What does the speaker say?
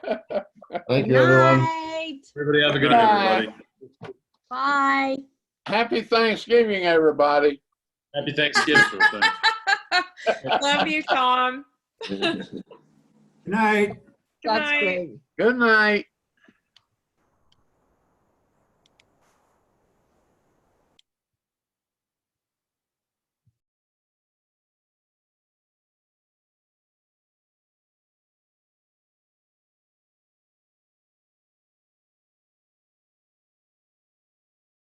Thank you, everyone. Night. Everybody have a good night, everybody. Bye. Happy Thanksgiving, everybody. Happy Thanksgiving. Thanks. Love you, Tom. Good night. Good night. Good night.